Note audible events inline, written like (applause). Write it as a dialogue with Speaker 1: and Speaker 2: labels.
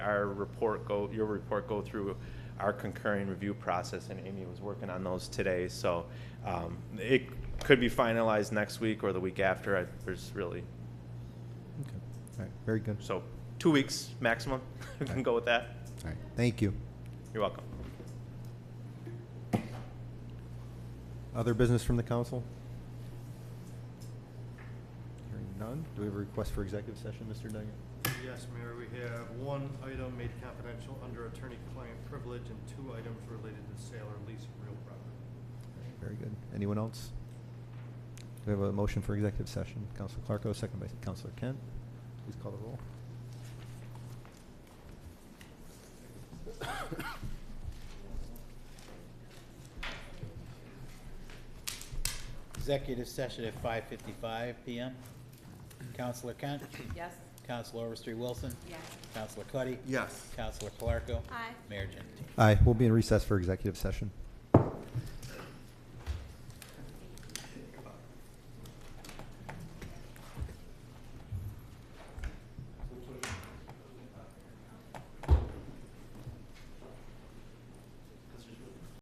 Speaker 1: our report go, your report go through our concurring review process, and Amy was working on those today, so um, it could be finalized next week or the week after, I- there's really,
Speaker 2: Okay. All right. Very good.
Speaker 1: so, two weeks maximum, (laughs) we can go with that.
Speaker 2: All right. Thank you.
Speaker 1: You're welcome.
Speaker 2: Other business from the council? Hearing none. Do we have a request for executive session, Mr. Daggett?
Speaker 3: Yes, Mayor, we have one item made confidential under attorney-client privilege and two items related to sale or lease of real property.
Speaker 2: Very good. Anyone else? Do we have a motion for executive session? Counselor Clarko, second by Counselor Kent. Please call the roll.
Speaker 4: Executive session at five fifty-five PM. Counselor Kent,
Speaker 5: Yes.
Speaker 4: Counselor Overstreet Wilson,
Speaker 5: Yes.
Speaker 4: Counselor Cuddy. Yes. Counselor Clarko.
Speaker 5: Aye.
Speaker 4: Mayor Gentine.
Speaker 2: Aye. We'll be in recess for executive session.